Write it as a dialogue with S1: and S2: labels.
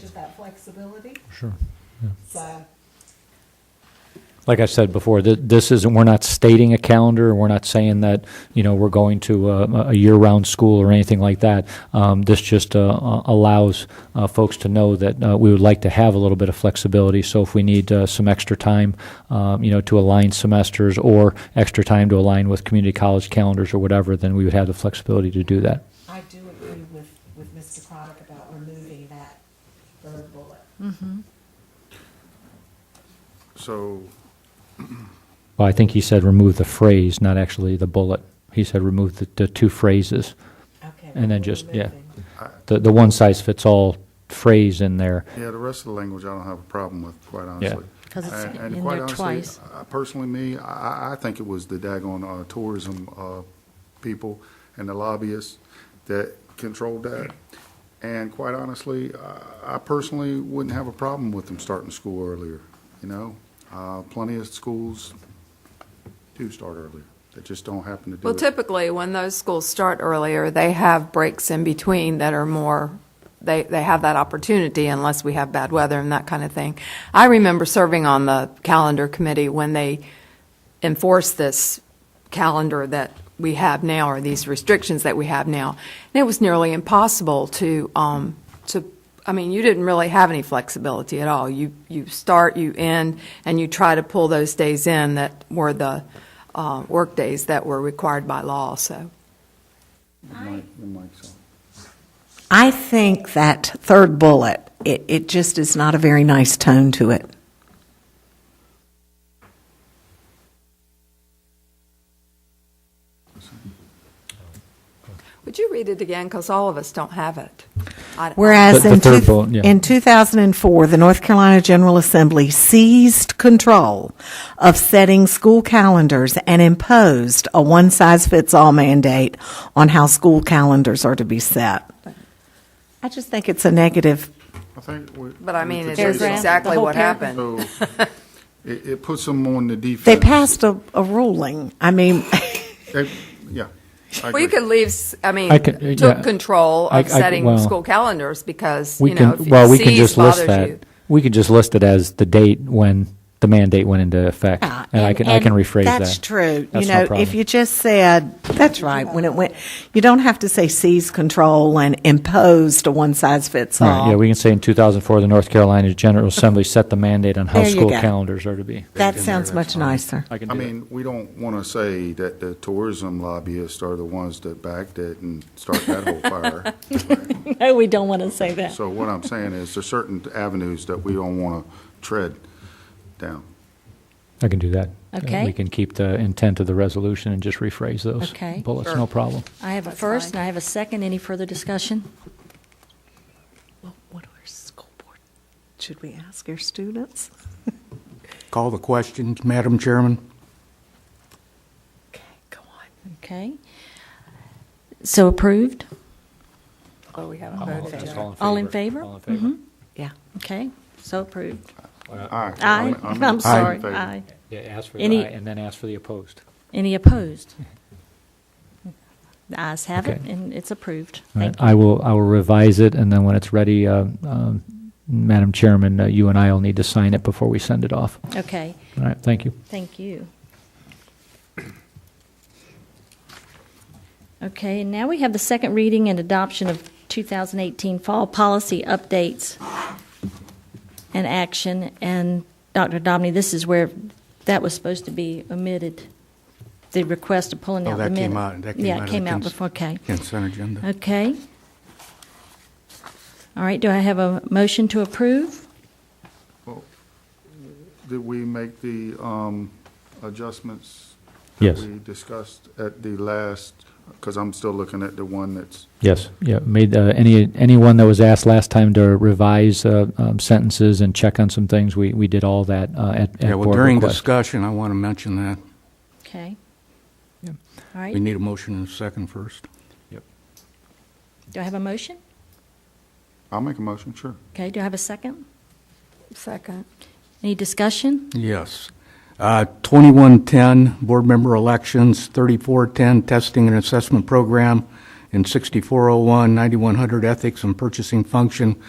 S1: just that flexibility,
S2: Sure.
S1: so,
S2: Like I said before, th- this isn't, we're not stating a calendar, and we're not saying that, you know, we're going to uh, a, a year-round school or anything like that. Um, this just, uh, uh, allows, uh, folks to know that, uh, we would like to have a little bit of flexibility. So if we need, uh, some extra time, um, you know, to align semesters or extra time to align with community college calendars or whatever, then we would have the flexibility to do that.
S1: I do agree with, with Mr. Craddock about removing that third bullet.
S3: So,
S2: Well, I think he said remove the phrase, not actually the bullet. He said remove the, the two phrases.
S1: Okay.
S2: And then
S1: we're
S2: just- yeah.
S1: removing.
S2: the, the one size fits all phrase in there.
S3: yeah, the rest of the language I don't have a problem with, quite honestly.
S4: 'Cause it's
S3: And-
S4: in there
S3: And quite
S4: twice.
S3: honestly, I- personally, me, I, I- I think it was the daggone uh, tourism uh, people and the lobbyists that controlled that. And quite honestly, I- I personally wouldn't have a problem with them starting school earlier, you know? Uh, Plenty of schools do start earlier, that just don't happen to do
S5: Well,
S3: it.
S5: typically, when those schools start earlier, they have breaks in between that are more, they, they have that opportunity unless we have bad weather and that kind of thing. I remember serving on the calendar committee when they enforced this calendar that we have now, or these restrictions that we have now. And it was nearly impossible to, um, to, I mean, you didn't really have any flexibility at all. You, you start, you end, and you try to pull those days in that were the, uh, workdays that were required by law, so.
S3: Mike- Mike's on.
S6: I think that third bullet, it, it just is not a very nice tone to it.
S5: Would you read it again? Because all of us don't have it. I-
S6: Whereas
S2: The- the
S6: in,
S2: third
S6: two-
S2: bullet, yeah.
S6: in 2004, the North Carolina General Assembly seized control of setting school calendars and imposed a one size fits all mandate on how school calendars are to be set. I just think it's a negative.
S3: I think we-
S5: But I
S3: we
S5: mean,
S3: could
S5: it's
S3: say something.
S5: exactly what happened.
S3: So it, it puts them on the defense.
S6: They passed a, a ruling. I mean,
S3: They- Yeah. I
S5: Well, you
S3: agree.
S5: could leave, s- I mean,
S2: I could- uh, yeah.
S5: took control
S2: I- I-
S5: of setting
S2: well,
S5: school calendars because,
S2: We
S5: you know,
S2: can, well, we
S5: if
S2: can
S5: you seize
S2: just list
S5: bothers you.
S2: that. We could just list it as the date when the mandate went into effect.
S6: Yeah,
S2: And I can, I can
S6: Ah, and
S2: rephrase that.
S6: That's true.
S2: That's
S6: you
S2: no
S6: know,
S2: problem.
S6: if you just said that's right when it went, you don't have to say seize control and imposed a one size fits
S2: All
S6: all.
S2: right, yeah, we can say in 2004, the North Carolina General Assembly set the mandate on how
S6: There you
S2: school
S6: go.
S2: calendars are to be.
S6: that sounds much nicer.
S2: I can
S3: I
S2: do that.
S3: mean, we don't want to say that the tourism lobbyists are the ones that backed it and started that whole fire.
S4: No, Oh, we don't want to say that.
S3: So what I'm saying is there's certain avenues that we don't want to tread down.
S2: I can do that. Uh,
S4: Okay.
S2: We can keep the intent of the resolution and just rephrase those
S4: Okay.
S2: bullets, no problem.
S4: I have a first and I have a second. Any further discussion?
S6: Well, what are school board? Should we ask our students?
S7: Call the questions, Madam Chairman.
S6: Okay, go on.
S4: Okay. So approved?
S5: Oh, we haven't voted yet.
S4: All in favor?
S2: All in favor?
S6: Yeah.
S4: Okay, so approved.
S3: Aye.
S4: Aye.
S3: I'm- I'm in
S4: I'm sorry,
S3: favor.
S4: aye.
S2: Yeah, ask for
S4: Any-
S2: the aye and then ask for the opposed.
S4: Any opposed? The ayes have it
S2: Okay.
S4: and it's approved.
S2: All right,
S4: Thank you.
S2: I will, I will revise it, and then when it's ready, uh, um, Madam Chairman, uh, you and I will need to sign it before we send it off.
S4: Okay,
S2: All right, thank you.
S4: thank you. Okay, and now we have the second reading and adoption of 2018 Fall Policy Updates and Action. And Dr. Domney, this is where that was supposed to be omitted, the request of pulling
S7: Oh,
S4: out the
S7: that
S4: minute.
S7: came out, that came out.
S4: Yeah,
S7: of
S4: it
S7: the
S4: came out
S7: cons-
S4: before, Uh-huh. okay.
S7: Consent agenda.
S4: Okay. All right, do I have a motion to approve?
S3: Did we make the um, adjustments?
S2: Yes.
S3: That we discussed at the last, because I'm still looking at the one that's,
S2: Yes, yeah, made, uh, any, anyone that was asked last time to revise uh, um, sentences and check on some things, we, we did all that uh, at, at
S7: Yeah, well,
S2: board
S7: during
S2: request.
S7: discussion, I want to mention that.
S4: Okay. All right,
S7: We need a motion and a second first.
S4: do I have a motion?
S3: I'll make a motion, sure.
S4: Okay, do I have a second?
S5: Second.
S4: Any discussion?
S7: Yes. Uh, 2110, board member elections, 3410, testing and oh assessment program, and 6401, 9100, ethics and purchasing function,